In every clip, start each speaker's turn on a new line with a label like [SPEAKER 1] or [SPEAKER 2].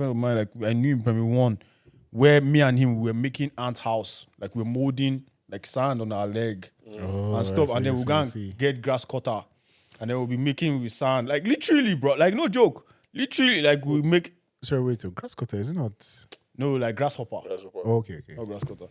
[SPEAKER 1] friend of mine, like I knew in primary one, where me and him we were making ant house, like we are molding like sand on our leg and stuff, and then we go and get grass cutter, and then we'll be making with sand, like literally, bro, like no joke, literally, like we make
[SPEAKER 2] Sorry, wait. oh, Grass cutter is it not?
[SPEAKER 1] no like grasshopper,
[SPEAKER 3] That's what-
[SPEAKER 2] Oh, okay, okay.
[SPEAKER 1] not grass cutter,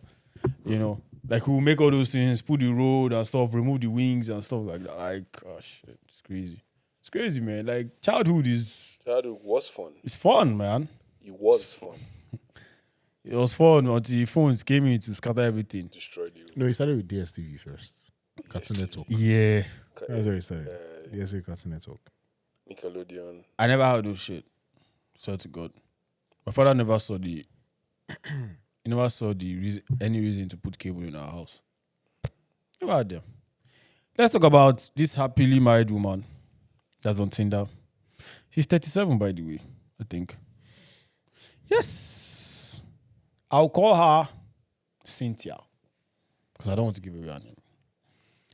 [SPEAKER 1] you know, like we'll make all those things, put the road and stuff, remove the wings and stuff like that, like oh shit, it's crazy, it's crazy, man. Like childhood is
[SPEAKER 3] Childhood was fun.
[SPEAKER 1] it's fun, man.
[SPEAKER 3] It was fun.
[SPEAKER 1] It was fun until phones came in to scatter everything.
[SPEAKER 3] Destroyed you.
[SPEAKER 2] No, he started with DSTV first. Cartoon Network.
[SPEAKER 1] Yeah.
[SPEAKER 2] That's where he started. DSTV Cartoon Network.
[SPEAKER 3] Nickelodeon.
[SPEAKER 1] I never had those shit. Swear to God. My father never saw the he never saw the reason, any reason to put cable in our house. Never had them. Let's talk about this happily married woman that's on Tinder. She's 37, by the way, I think. Yes. I'll call her Cynthia. Because I don't want to give away her name.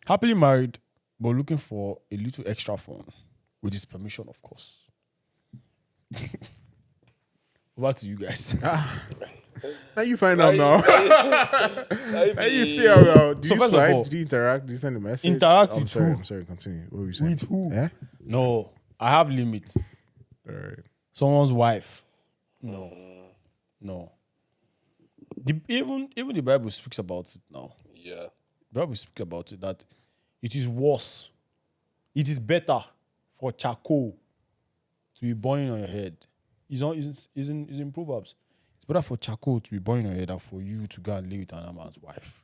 [SPEAKER 1] Happily married, but looking for a little extra fun. With his permission, of course. Over to you guys.
[SPEAKER 2] Now you find out now.
[SPEAKER 3] Ivy.
[SPEAKER 2] Now you see how well. Do
[SPEAKER 1] So
[SPEAKER 2] you
[SPEAKER 1] first of
[SPEAKER 2] slide?
[SPEAKER 1] all-
[SPEAKER 2] do you interact? Do you send a message?
[SPEAKER 1] Interact
[SPEAKER 2] I'm
[SPEAKER 1] with
[SPEAKER 2] sorry.
[SPEAKER 1] who?
[SPEAKER 2] I'm sorry. Continue. What were you saying?
[SPEAKER 1] With who?
[SPEAKER 2] Yeah.
[SPEAKER 1] no, I have limit.
[SPEAKER 2] All right.
[SPEAKER 1] Someone's wife. No. No. The, even even the Bible speaks about it now.
[SPEAKER 3] Yeah.
[SPEAKER 1] The Bible speaks about it that it is worse. It is better for charcoal to be burning on your head. It's on is is in, is in Proverbs. It's better for charcoal to be burning on your head than for you to go and live with another man's wife.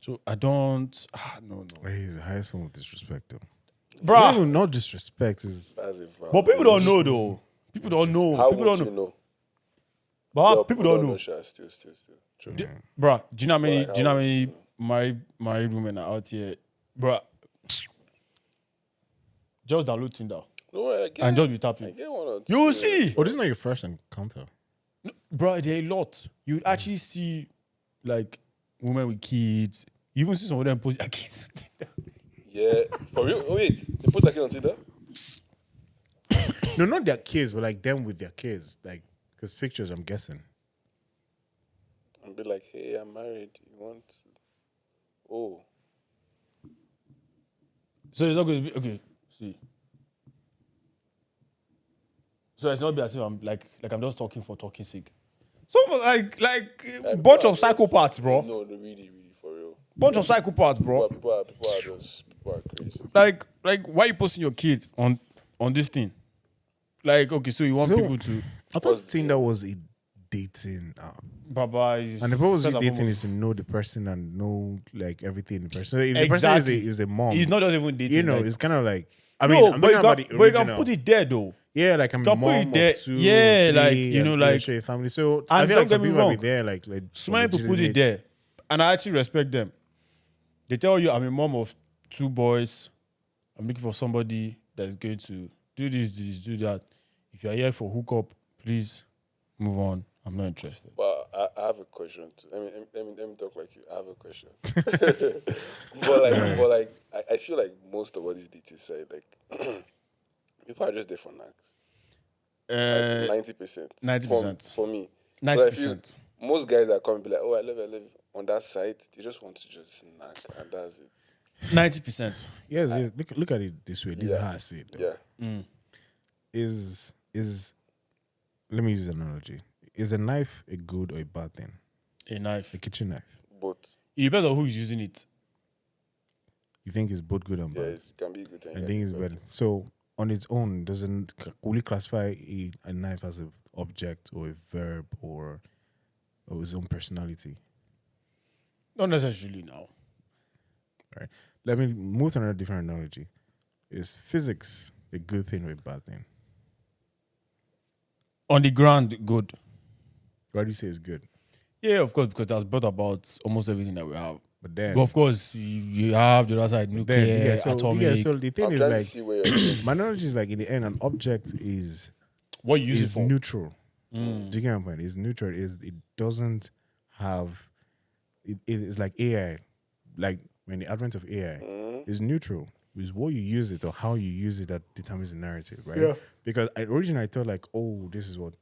[SPEAKER 1] So I don't ah, no no.
[SPEAKER 2] Well, he's the highest form of disrespect, though.
[SPEAKER 1] Bruh.
[SPEAKER 2] Not even- Not disrespect. Is
[SPEAKER 3] That's a vow.
[SPEAKER 1] But people don't know though. People don't know.
[SPEAKER 3] How
[SPEAKER 1] people don't
[SPEAKER 3] would
[SPEAKER 1] know.
[SPEAKER 3] you know?
[SPEAKER 1] But how
[SPEAKER 3] Yeah,
[SPEAKER 1] people don't know.
[SPEAKER 3] Sha. Still, still, still. True.
[SPEAKER 1] D- Bruh, do you know how many?
[SPEAKER 3] Like,
[SPEAKER 1] do you know
[SPEAKER 3] how
[SPEAKER 1] how many married married women are out here, bruh? Just download Tinder
[SPEAKER 3] No, I get,
[SPEAKER 1] and just be
[SPEAKER 3] I
[SPEAKER 1] tapping.
[SPEAKER 3] get one or two.
[SPEAKER 1] You will see,
[SPEAKER 2] oh, this is not your first encounter.
[SPEAKER 1] bruh. There are a lot. You would actually see, like, women with kids. You even see some of them post their kids. on Tinder.
[SPEAKER 3] Yeah. For real? Oh, wait. They put that kid on Tinder?
[SPEAKER 2] No, not their kids, but like them with their kids, like because pictures. I'm guessing.
[SPEAKER 3] And be like, hey, I'm married. You want. Oh.
[SPEAKER 1] so it's not going to be okay. See. So it's not be as if I'm like like I'm just talking for talking sake. Some like like bunch of psychopaths, bro.
[SPEAKER 3] No, no, really, really, for real.
[SPEAKER 1] Bunch of psychopaths, bro.
[SPEAKER 3] But people are, people are just, people are crazy.
[SPEAKER 1] like like why you posting your kid on on this thing? Like okay, so you want
[SPEAKER 2] So-
[SPEAKER 1] people to
[SPEAKER 2] I thought Tinder was a dating app,
[SPEAKER 1] Baba is
[SPEAKER 2] and the purpose
[SPEAKER 1] first
[SPEAKER 2] of
[SPEAKER 1] and
[SPEAKER 2] dating
[SPEAKER 1] foremost-
[SPEAKER 2] is to know the person and know like everything the person. If the person is a,
[SPEAKER 1] Exactly.
[SPEAKER 2] is a mom,
[SPEAKER 1] He's not just even dating.
[SPEAKER 2] you know,
[SPEAKER 1] like,
[SPEAKER 2] it's kind of like I
[SPEAKER 1] no,
[SPEAKER 2] mean, I'm
[SPEAKER 1] but,
[SPEAKER 2] talking
[SPEAKER 1] you can,
[SPEAKER 2] about the
[SPEAKER 1] but you
[SPEAKER 2] original.
[SPEAKER 1] can put it there though.
[SPEAKER 2] yeah, like I'm
[SPEAKER 1] can
[SPEAKER 2] a
[SPEAKER 1] put
[SPEAKER 2] mom
[SPEAKER 1] it
[SPEAKER 2] of
[SPEAKER 1] there.
[SPEAKER 2] two,
[SPEAKER 1] Yeah,
[SPEAKER 2] three,
[SPEAKER 1] like, you
[SPEAKER 2] and
[SPEAKER 1] know,
[SPEAKER 2] they
[SPEAKER 1] like-
[SPEAKER 2] show your family. So I
[SPEAKER 1] And
[SPEAKER 2] feel
[SPEAKER 1] don't get
[SPEAKER 2] like some
[SPEAKER 1] me
[SPEAKER 2] people might be
[SPEAKER 1] wrong.
[SPEAKER 2] there, like like
[SPEAKER 1] So many people put it
[SPEAKER 2] legitimate-
[SPEAKER 1] there, and I actually respect them. They tell you I'm a mom of two boys. I'm looking for somebody that's going to do this, do this, do that. If you're here for hookup, please move on. I'm not interested.
[SPEAKER 3] But I, I have a question. Too. I mean, let me, let me talk like you. I have a question. but like, but like, I, I feel like most of what these DTs say, like, people are just there for knacks.
[SPEAKER 2] Eh.
[SPEAKER 1] Uh,
[SPEAKER 3] Ninety percent.
[SPEAKER 1] 90%.
[SPEAKER 3] for me.
[SPEAKER 1] 90%.
[SPEAKER 3] So I feel Most guys that come and be like, "Oh, I love, you, I love." you," On that site, they just want to just knack, and that's it.
[SPEAKER 1] Ninety percent.
[SPEAKER 2] Yes, yes. Look, look at it this way. This is
[SPEAKER 3] Yeah.
[SPEAKER 2] how I see it. Though.
[SPEAKER 3] Yeah.
[SPEAKER 2] Is is let me use an analogy. Is a knife a good or a bad thing?
[SPEAKER 1] A knife.
[SPEAKER 2] A kitchen knife.
[SPEAKER 3] But
[SPEAKER 1] It depends on who is using it.
[SPEAKER 2] You think it's both good and
[SPEAKER 3] yeah,
[SPEAKER 2] bad?
[SPEAKER 3] it can be a good thing.
[SPEAKER 2] I
[SPEAKER 3] yeah.
[SPEAKER 2] think it's
[SPEAKER 3] But
[SPEAKER 2] bad. So on its own, doesn't c- will you classify a, a knife as an object or a verb or or its own personality?
[SPEAKER 1] Not necessarily now.
[SPEAKER 2] Right. Let me move to another different analogy. Is physics a good thing or a bad thing?
[SPEAKER 1] On the ground, good.
[SPEAKER 2] Why do you say it's good?
[SPEAKER 1] Yeah, of course, because that's brought about almost everything that we have.
[SPEAKER 2] But then,
[SPEAKER 1] But of course, you, you have the other side, nuclear,
[SPEAKER 2] then yeah, so,
[SPEAKER 1] atomic.
[SPEAKER 2] yeah, so the thing
[SPEAKER 3] I'm
[SPEAKER 2] is
[SPEAKER 3] trying
[SPEAKER 2] like
[SPEAKER 3] to see where you're
[SPEAKER 2] My knowledge is like in the end, an object is
[SPEAKER 1] what you use it
[SPEAKER 2] is
[SPEAKER 1] for? Mm.
[SPEAKER 2] neutral. Do you get my point? It's neutral. Is it doesn't have it, it is like AI, like when the advent of AI is neutral. It's what you use it or how you use it that determines the narrative, right? Because I originally I thought like, oh, this is what